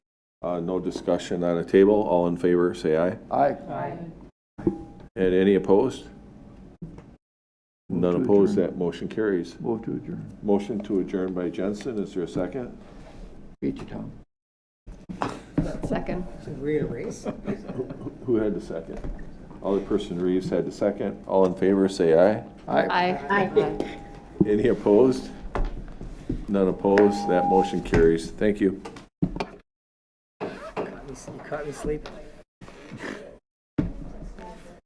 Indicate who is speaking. Speaker 1: Uh, No discussion on a table. All in favor, say aye.
Speaker 2: Aye.
Speaker 1: And any opposed? None
Speaker 2: to
Speaker 1: opposed,
Speaker 2: adjourn.
Speaker 1: that motion carries.
Speaker 2: Move to adjourn.
Speaker 1: Motion to adjourn by Jensen, is there a second?
Speaker 2: Beat you, Tom.
Speaker 3: Second.
Speaker 1: Who had the second? Alderperson Reeves had the second. All in favor, say aye.
Speaker 2: Aye.
Speaker 3: Aye. Aye.
Speaker 1: Any opposed? None opposed, that motion carries. Thank you.
Speaker 4: You caught me sleeping.